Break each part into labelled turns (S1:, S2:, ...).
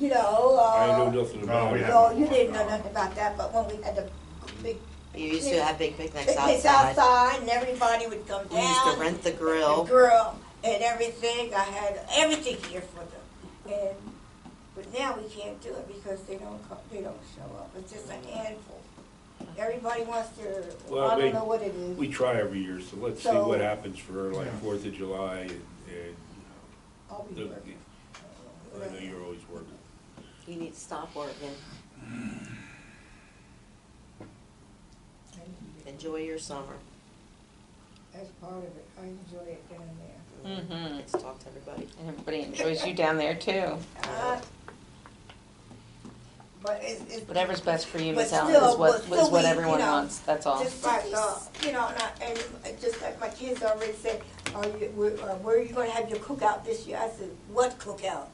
S1: you know,
S2: I
S1: uh,
S2: knew nothing
S3: No,
S2: about
S3: we
S2: it.
S3: haven't.
S1: no, you didn't know nothing about that, but when we had the big
S4: You used to have big picnics
S1: picnics
S4: outside.
S1: outside and everybody would come
S4: We used to
S1: down.
S4: rent the
S1: The
S4: grill.
S1: grill and everything, I had everything here for them. And, but now we can't do it because they don't come, they don't show up. It's just a handful. Everybody wants their,
S2: Well,
S1: I
S2: they-
S1: don't know what it is.
S2: We try every year, so let's see
S1: So-
S2: what happens for like
S3: Yeah.
S2: Fourth of July and, and
S1: I'll be
S2: the-
S1: working.
S2: I know you're always working.
S4: You need to stop working. Enjoy your summer.
S1: That's part of it. I enjoy it down there.
S5: Mm-hmm.
S4: Let's talk to everybody.
S5: And everybody enjoys you down there too.
S1: Uh, But it's, it's.
S5: Whatever's best for you,
S1: But
S5: Miss Allen,
S1: still-
S5: is what,
S1: but still
S5: is what
S1: we, you
S5: everyone
S1: know,
S5: wants, that's all.
S1: Just like, uh, you know, and I, and it's just like my kids already said, are you, where, uh, where are you gonna have your cookout this year? I said, what cookout?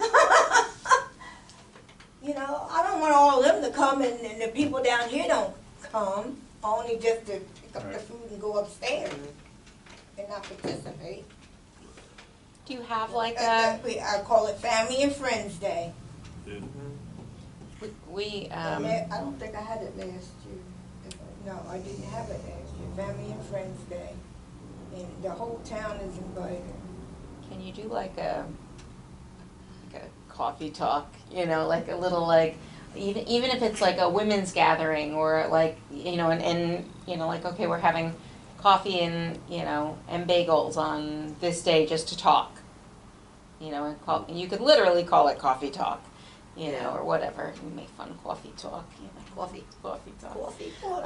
S1: You know, I don't want all of them to come and, and the people down here don't come, only just to pick up the
S3: Right.
S1: food and go upstairs
S4: Mm-hmm.
S1: and not participate.
S5: Do you have like
S1: Uh,
S5: a,
S1: We, I call it Family and Friends Day.
S5: we,
S1: And
S5: um,
S1: that- I don't think I had it last year. If I- No, I didn't have it last year, Family and Friends Day. And the whole town is invited.
S5: can you do like a, like a coffee talk, you know, like a little like, even, even if it's like a women's gathering or like, you know, and, and, you know, like, okay, we're having coffee and, you know, and bagels on this day just to talk. You know, and call, and you could literally call it coffee talk, you know, or whatever, You make fun of coffee talk, you know, coffee, coffee talk.
S4: Coffee.
S1: Uh,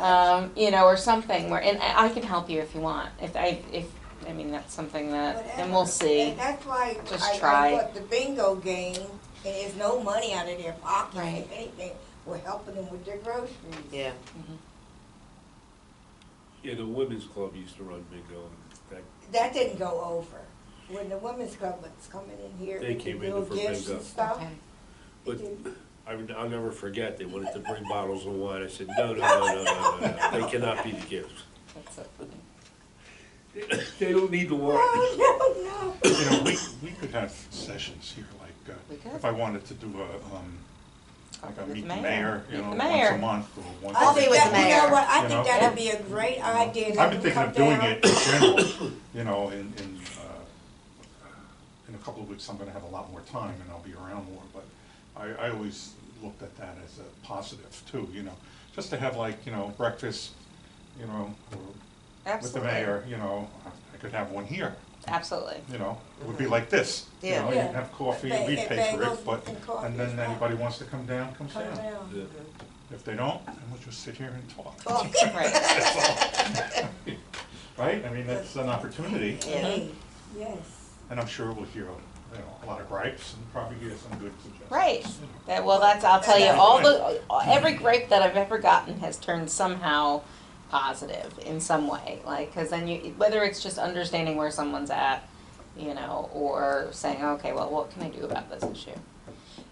S5: um, you know, or something where, and I I can help you if you want, if I, if, I mean, that's something that, and we'll
S1: Whatever.
S5: see.
S1: And that's why
S5: Just
S1: I, I
S5: try.
S1: bought the bingo game, and there's no money out of their pocket,
S5: Right.
S1: if anything. We're helping them with their groceries.
S4: Yeah.
S2: Yeah, the women's club used to run bingo, and
S1: That didn't go over. When the women's club was coming in here,
S2: They
S1: with the
S2: came in
S1: little
S2: for
S1: gifts
S2: bingo.
S1: and stuff.
S5: Okay.
S1: it
S2: But-
S1: didn't-
S2: that, I, I'll never forget, they wanted to bring bottles of wine, I said, no, no, no, no, no, no, no, they cannot be the gifts.
S5: That's so funny.
S2: They don't need the wine.
S1: Oh, no, no.
S3: You know, we, we could have sessions here, like,
S5: We could.
S3: uh, if I wanted to do a, um, like a
S5: With
S3: meet
S5: the
S3: the
S5: mayor.
S3: mayor, you
S5: Meet
S3: know,
S5: the
S3: once
S5: mayor.
S3: a month or once.
S1: I
S4: I'll
S3: a
S4: be
S1: think
S4: with
S1: that,
S4: the
S1: you know
S4: mayor.
S1: what, I
S3: You
S1: think
S3: know?
S1: that'd be a great idea.
S3: I've been thinking
S1: Come
S3: of doing
S1: down.
S3: it in general, you know, in, in, uh, in a couple of weeks, I'm gonna have a lot more time and I'll be around more, but I, I always looked at that as a positive too, you know, just to have like, you know, breakfast, you know, or with the
S5: Absolutely.
S3: mayor, you know, I- I could have one here,
S5: Absolutely.
S3: you know, it would be like this, you
S4: Yeah.
S3: know, you'd
S1: Yeah.
S3: have coffee,
S1: Ba-
S3: we'd
S1: and
S3: pay for
S1: bagels
S3: it, but,
S1: and coffee
S3: and
S1: as
S3: then
S1: well.
S3: anybody wants to come down, comes
S1: Come
S3: down.
S1: down.
S2: Yeah.
S3: If they don't, then we'll just sit here and talk.
S1: Talk.
S5: Right,
S3: Right, I mean, that's an opportunity.
S4: Yeah.
S1: Hey, Yes.
S3: And I'm sure we'll hear, you know, a lot of gripes and probably hear some good suggestions.
S5: right. That, well, that's, I'll tell you, all the, every grape that I've ever gotten has turned somehow positive in some way. Like, cause then you, whether it's just understanding where someone's at, you know, or saying, okay, well, what can I do about this issue?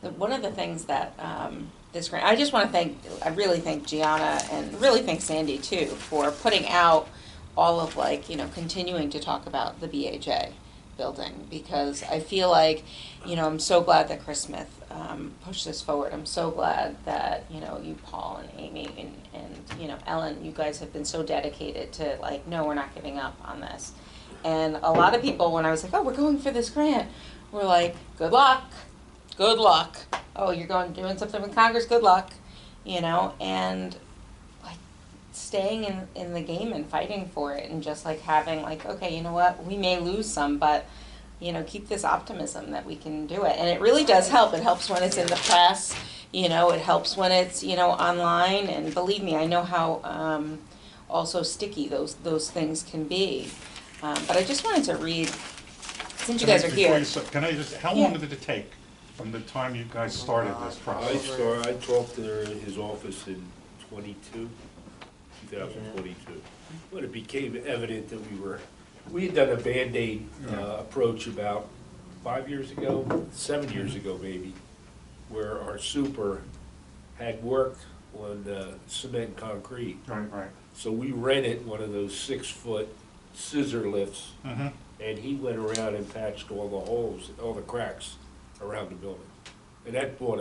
S5: The- One of the things that um, this grant, I just want to thank, I really thank Gianna and really thank Sandy too for putting out all of like, you know, continuing to talk about the BHA building because I feel like, you know, I'm so glad that Chris Smith um, pushed this forward. I'm so glad that, you know, you, Paul and Amy and, and, you know, Ellen, you guys have been so dedicated to like, no, we're not giving up on this. And a lot of people, when I was like, oh, we're going for this grant, were like, good luck good luck. Oh, you're going doing something with Congress, good luck. You know, and like staying in, in the game and fighting for it and just like having like, okay, you know what, we may lose some, but you know, keep this optimism that we can do it. And it really does help. It helps when it's in the press, you know, it helps when it's, you know, online and believe me, I know how um, also sticky those those things can be. Um, but I just wanted to read since you
S3: Can I-
S5: guys are
S3: before
S5: here.
S3: you start- Can I just, how
S5: Yeah.
S3: long did it take from the time you guys started this
S2: I
S3: process?
S2: saw, I talked to her in his office in twenty-two, two thousand twenty-two, when it became evident that we were, we had done a Band-Aid, uh,
S3: Yeah.
S2: approach about five years ago, seven years ago maybe, where our super had worked on, uh, cement and concrete.
S3: Right, right.
S2: So we rented one of those six-foot scissor lifts,
S3: Mhm.
S2: and he went around and patched all the holes, all the cracks around the building. And that brought us